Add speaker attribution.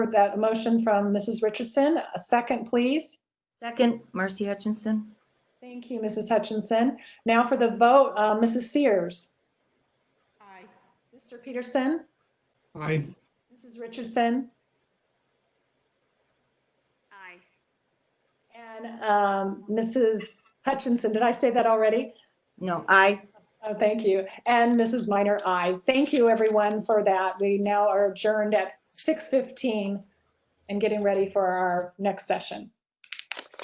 Speaker 1: heard that motion from Mrs. Richardson. A second, please.
Speaker 2: Second, Marcy Hutchinson.
Speaker 1: Thank you, Mrs. Hutchinson. Now for the vote, uh, Mrs. Sears.
Speaker 3: Aye.
Speaker 1: Mr. Peterson,
Speaker 4: Aye.
Speaker 1: Mrs. Richardson,
Speaker 3: Aye.
Speaker 1: and um, Mrs. Hutchinson. Did I say that already?
Speaker 2: No, I.
Speaker 1: Oh, thank you. And Mrs. Minor, aye. Thank you, everyone, for that. We now are adjourned at 6:15 and getting ready for our next session.